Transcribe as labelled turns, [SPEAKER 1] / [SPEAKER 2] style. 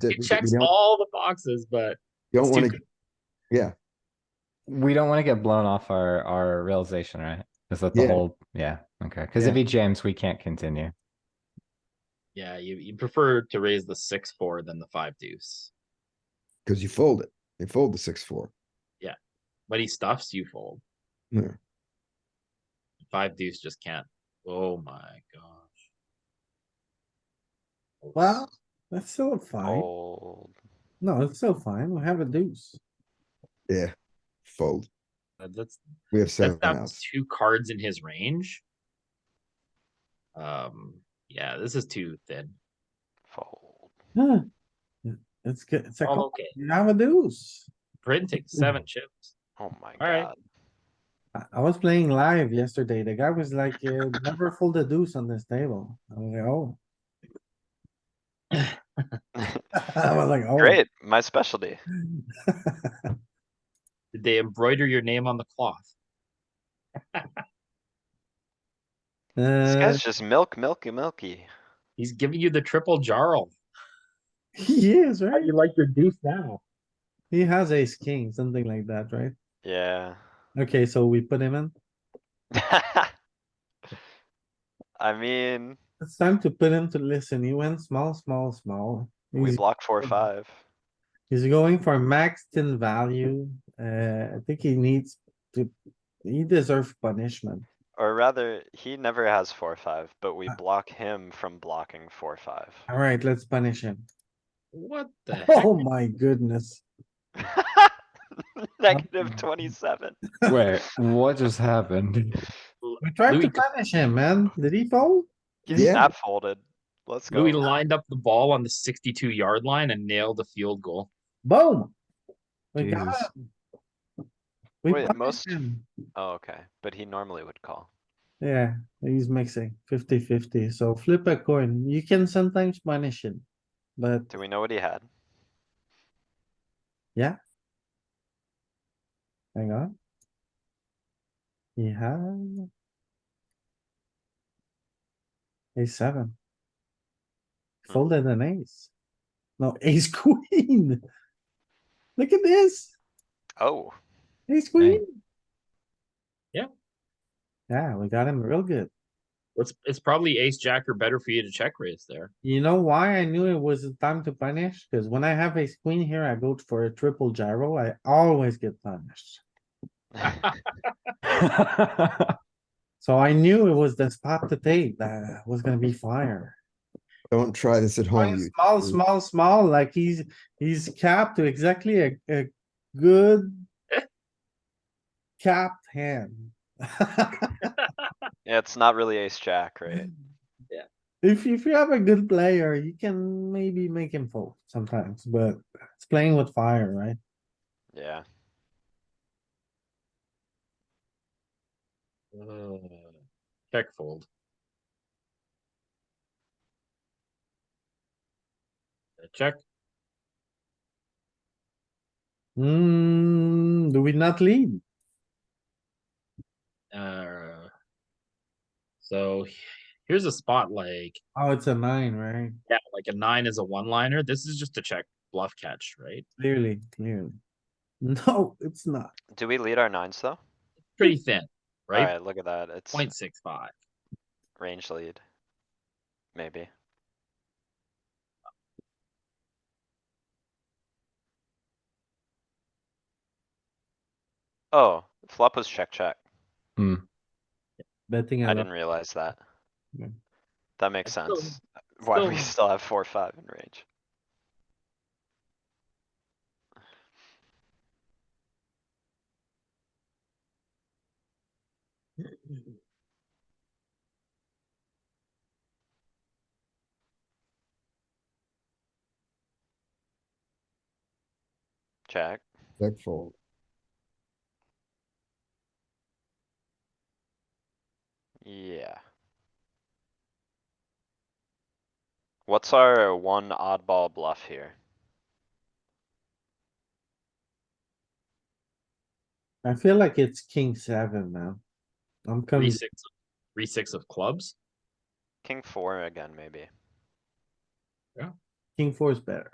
[SPEAKER 1] that
[SPEAKER 2] It
[SPEAKER 1] we- we
[SPEAKER 2] checks
[SPEAKER 1] don't-
[SPEAKER 2] all the boxes, but
[SPEAKER 1] Don't
[SPEAKER 2] it's too
[SPEAKER 1] wanna,
[SPEAKER 2] good.
[SPEAKER 1] yeah,
[SPEAKER 3] We don't want to get blown off our, our realization, right? Is that the
[SPEAKER 1] Yeah.
[SPEAKER 3] whole, yeah, okay, because if he jams, we can't continue.
[SPEAKER 2] yeah, you, you prefer to raise the six, four than the five deuce.
[SPEAKER 1] cuz you fold it. They fold the six, four.
[SPEAKER 2] But he stuffs, you fold.
[SPEAKER 1] Yeah.
[SPEAKER 2] Five deuce just can't. Oh my gosh.
[SPEAKER 4] Well, that's still fine.
[SPEAKER 5] Oh. Fold.
[SPEAKER 4] No, it's still fine. We have a deuce.
[SPEAKER 1] Yeah, fold.
[SPEAKER 2] That- That's,
[SPEAKER 1] We have
[SPEAKER 2] that's
[SPEAKER 1] seven
[SPEAKER 2] down to
[SPEAKER 1] outs.
[SPEAKER 2] two cards in his range. Um, yeah, this is too thin.
[SPEAKER 5] Fold.
[SPEAKER 4] Huh. It's good. It's a,
[SPEAKER 2] Oh,
[SPEAKER 4] call.
[SPEAKER 2] Okay,
[SPEAKER 4] You have a deuce.
[SPEAKER 2] printing seven chips.
[SPEAKER 5] Oh my
[SPEAKER 2] Alright.
[SPEAKER 5] god.
[SPEAKER 4] I, I was playing live yesterday. The guy was like, uh, never fold a deuce on this table. I was like, oh. I was like, oh.
[SPEAKER 5] Great, my specialty.
[SPEAKER 2] Did they embroider your name on the cloth?
[SPEAKER 5] This
[SPEAKER 4] Uh,
[SPEAKER 5] guy's just milk, milky, milky.
[SPEAKER 2] He's giving you the triple jarl.
[SPEAKER 4] he is, right?
[SPEAKER 2] like your deuce now?
[SPEAKER 4] He has ace king, something like that, right?
[SPEAKER 5] Yeah.
[SPEAKER 4] Okay, so we put him in.
[SPEAKER 5] I mean,
[SPEAKER 4] It's time to put him to listen. He went small, small, small.
[SPEAKER 5] we
[SPEAKER 4] He's-
[SPEAKER 5] block four,
[SPEAKER 4] good.
[SPEAKER 5] five.
[SPEAKER 4] He's going for maxed in value. Uh, I think he needs to, he deserves punishment.
[SPEAKER 5] Or rather, he never has four, five, but we
[SPEAKER 4] Uh.
[SPEAKER 5] block him from blocking four, five.
[SPEAKER 4] Alright, let's punish him.
[SPEAKER 2] What the heck?
[SPEAKER 4] Oh my goodness.
[SPEAKER 5] Negative twenty-seven.
[SPEAKER 3] Wait, what just happened?
[SPEAKER 4] We tried
[SPEAKER 2] Louis-
[SPEAKER 4] to punish him, man. Did he fold?
[SPEAKER 5] He's
[SPEAKER 1] Yeah.
[SPEAKER 5] not folded. Let's go.
[SPEAKER 2] Louis lined up the ball on the sixty-two yard line and nailed a field goal.
[SPEAKER 4] Boom. We got
[SPEAKER 3] Jesus.
[SPEAKER 4] him. We
[SPEAKER 5] Wait,
[SPEAKER 4] punished
[SPEAKER 5] most-
[SPEAKER 4] him.
[SPEAKER 5] Oh, okay, but he normally would call.
[SPEAKER 4] Yeah, he's mixing 50-50. so flip a coin. You can sometimes punish him. But
[SPEAKER 5] Do we know what he had?
[SPEAKER 4] hang on. He had. A seven.
[SPEAKER 5] Hmm.
[SPEAKER 4] Folded an ace. No, ace queen. Look at this,
[SPEAKER 5] Oh,
[SPEAKER 4] ace queen.
[SPEAKER 2] Yeah.
[SPEAKER 4] Yeah, we got him real good.
[SPEAKER 2] It's, it's probably ace jack or better for you to check raise there.
[SPEAKER 4] You know why I knew it was time to punish? Cause when I have ace queen here, I go for a triple gyro. I always get punished.
[SPEAKER 2] Ah. Uh,
[SPEAKER 4] So I knew it was the spot to take that was gonna be fire.
[SPEAKER 1] Don't try this at home.
[SPEAKER 4] Playing
[SPEAKER 1] you-
[SPEAKER 4] Small,
[SPEAKER 1] you-
[SPEAKER 4] small, small, like he's, he's capped to exactly a, a good. Capped hand.
[SPEAKER 5] yeah, it's not really ace jack, right?
[SPEAKER 4] If, if you have a good player, you can maybe make him fold sometimes, but it's playing with fire, right?
[SPEAKER 5] Yeah,
[SPEAKER 2] Uh, Check fold. Uh, Check.
[SPEAKER 4] Hmm, do we not lead?
[SPEAKER 2] Uh, so he- here's a spot like,
[SPEAKER 4] Oh, it's a nine, right?
[SPEAKER 2] yeah, like a nine is a one liner. This is just a check bluff catch, right?
[SPEAKER 4] Clearly, clearly. No, it's not.
[SPEAKER 5] do we lead our nines though?
[SPEAKER 2] Pretty thin, right?
[SPEAKER 5] Alright, look at that, it's
[SPEAKER 2] Point six five.
[SPEAKER 5] range lead. Maybe, oh, flop was check, check,
[SPEAKER 4] Betting
[SPEAKER 5] I
[SPEAKER 4] a
[SPEAKER 5] didn't
[SPEAKER 4] lot.
[SPEAKER 5] realize that.
[SPEAKER 4] Yeah.
[SPEAKER 5] That makes
[SPEAKER 2] I still-
[SPEAKER 5] sense, why we
[SPEAKER 2] still-
[SPEAKER 5] still have four, five in range. Check,
[SPEAKER 1] Check fold.
[SPEAKER 5] yeah. What's our one oddball bluff here?
[SPEAKER 4] I feel like it's king seven now. I'm
[SPEAKER 2] Three
[SPEAKER 4] coming,
[SPEAKER 2] six, three six of clubs.
[SPEAKER 5] King four again, maybe.
[SPEAKER 4] king four is better.